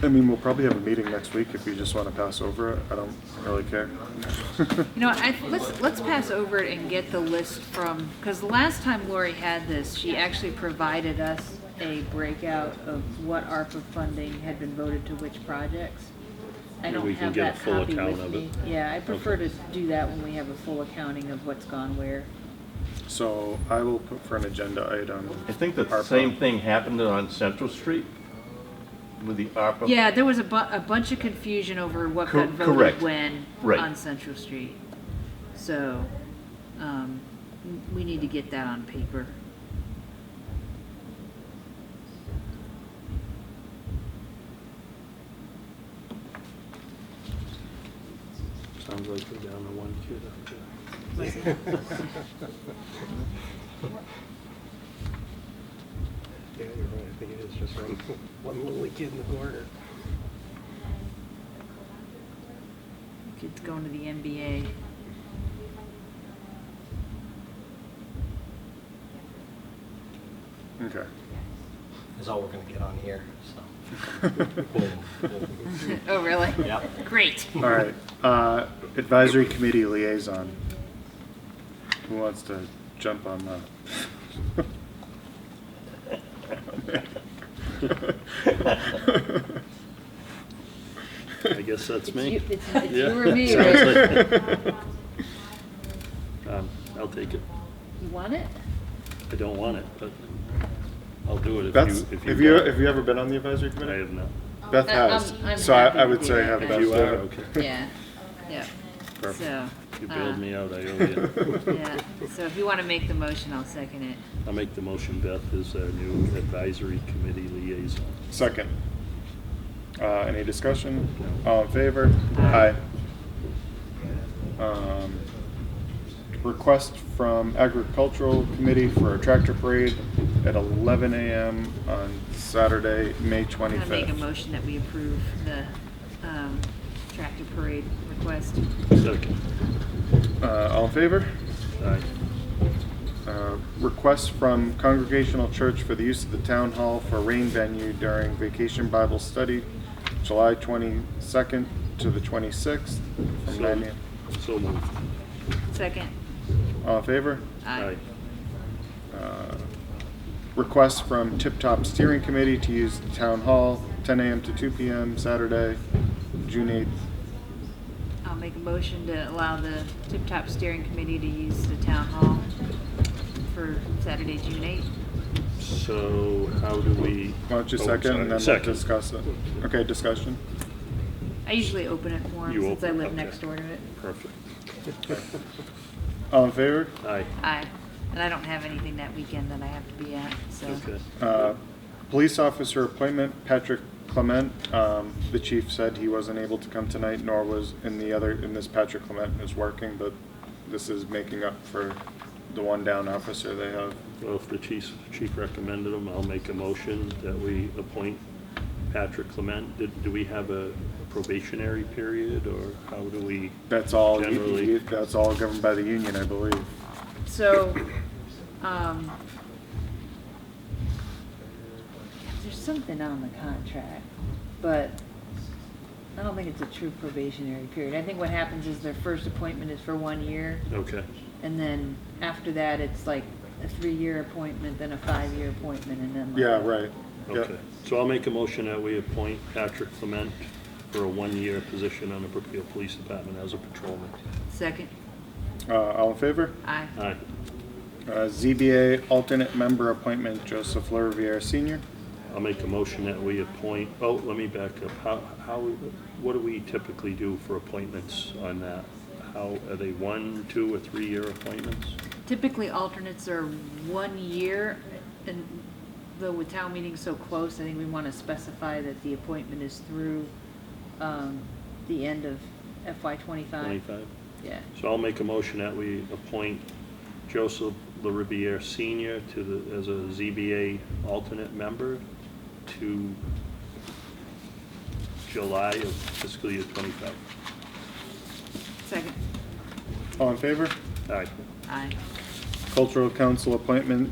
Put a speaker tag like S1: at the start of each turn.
S1: I mean, we'll probably have a meeting next week if you just want to pass over it. I don't really care.
S2: You know, I, let's, let's pass over it and get the list from, because the last time Lori had this, she actually provided us a breakout of what ARPA funding had been voted to which projects. I
S3: Maybe
S2: don't
S3: we can
S2: have
S3: get a
S2: that
S3: full
S2: copy
S3: account
S2: with
S3: of
S2: me.
S3: it.
S2: Yeah, I prefer to do that when we have a full accounting of what's gone where.
S1: So I will put for an agenda item.
S3: I think the
S1: ARPA.
S3: same thing happened on Central Street with the ARPA.
S2: Yeah, there was a bu- a bunch of confusion over what
S3: Cor-
S2: got
S3: correct.
S2: voted when
S3: Right.
S2: on Central Street. So, um, w- we need to get that on paper.
S4: Sounds like we're down to one kid up there.
S5: Yeah, you're right, I think it is just one, one little kid in the corner.
S2: Kids going to the NBA.
S1: Okay.
S5: That's all we're gonna get on here, so.
S2: Oh, really?
S5: Yeah.
S2: Great.
S1: All right. Uh, advisory committee liaison. Who wants to jump on that?
S4: I guess that's
S2: It's
S4: me.
S2: you- It's it's
S4: Yeah.
S2: you or me,
S4: Sounds
S2: right?
S4: Um, I'll take it.
S2: You want it?
S4: I don't want it, but I'll do it
S1: That's,
S4: if you, if you.
S1: have you,
S4: want.
S1: have you ever been on the advisory
S4: I
S1: committee?
S4: have not.
S1: Beth
S2: I- Uh, um,
S1: has,
S2: I'm- I'm
S1: so I,
S2: happy
S1: I
S2: to
S1: would
S2: do
S1: say
S2: that,
S1: have
S2: but-
S1: Beth.
S4: You
S1: do
S4: are,
S1: it.
S4: okay.
S2: Yeah, yeah.
S1: Perfect.
S2: So,
S4: You
S2: uh,
S4: bailed me out, I owe you.
S2: yeah, so if you want to make the motion, I'll second it.
S4: I'll make the motion, Beth, is our new advisory committee liaison.
S1: Second. Uh, any discussion?
S4: No.
S1: All in favor? Aye. Um, Request from agricultural committee for a tractor parade at eleven AM on Saturday, May
S2: I'm going to make a
S1: twenty-fifth.
S2: motion that we approve the um, tractor parade request.
S4: Second.
S1: Uh, all in favor?
S4: Aye.
S1: Uh, Request from Congregational Church for the use of the town hall for rain venue during Vacation Bible Study, July twenty-second to the twenty-sixth, from
S4: So-
S1: nine AM.
S4: So moved.
S2: Second?
S1: All in favor?
S2: Aye.
S1: Uh, Request from Tip Top Steering Committee to use Town Hall, ten AM to two PM, Saturday, June eighth.
S2: I'll make a motion to allow the Tip Top Steering Committee to use the town hall for Saturday, June 8th.
S4: So how do we?
S1: Why don't you
S4: Oh, I'm
S1: second and
S4: sorry.
S1: then we'll
S4: Second.
S1: discuss it? Okay, discussion.
S2: I usually open it for 'em
S4: You
S2: since I
S4: open,
S2: live
S4: okay.
S2: next door to it.
S4: Perfect.
S1: All in favor?
S4: Aye.
S2: Aye. And I don't have anything that weekend that I have to be at, so.
S4: Okay.
S1: Uh, Police officer appointment, Patrick Clement. Um, The chief said he wasn't able to come tonight, nor was in the other, in this Patrick Clement is working, but this is making up for the one down officer they have.
S4: Well, if the chief, chief recommended him, I'll make a motion that we appoint Patrick Clement. Did, do we have a probationary period, or how do we?
S1: That's all,
S4: Generally.
S1: that's all governed by the union, I believe.
S2: So, um, there's something on the contract, but I don't think it's a true probationary period. I think what happens is their first appointment is for one year,
S4: Okay,
S2: and then after that, it's like a three-year appointment, then a five-year appointment, and then like.
S1: Yeah, right. Yeah.
S4: okay. So I'll make a motion that we appoint Patrick Clement for a one-year position on the Brookfield Police Department as a patrolman.
S2: Second,
S1: Uh, all in favor?
S2: aye.
S4: Aye.
S1: Uh, ZBA alternate member appointment, Joseph Luriviere Senior.
S4: I'll make a motion that we appoint, oh, let me back up. How, how, what do we typically do for appointments on that? How, are they one, two, or three-year appointments?
S2: Typically, alternates are one year, and though with town meetings so close, I think we want to specify that the appointment is through um, the end of FY twenty-five.
S4: Twenty-five?
S2: Yeah,
S4: So I'll make a motion that we appoint Joseph LaRiviere Senior to the, as a ZBA alternate member to July of fiscal year twenty-five.
S2: second,
S1: All in favor?
S4: Aye.
S2: aye.
S1: Cultural Council appointment,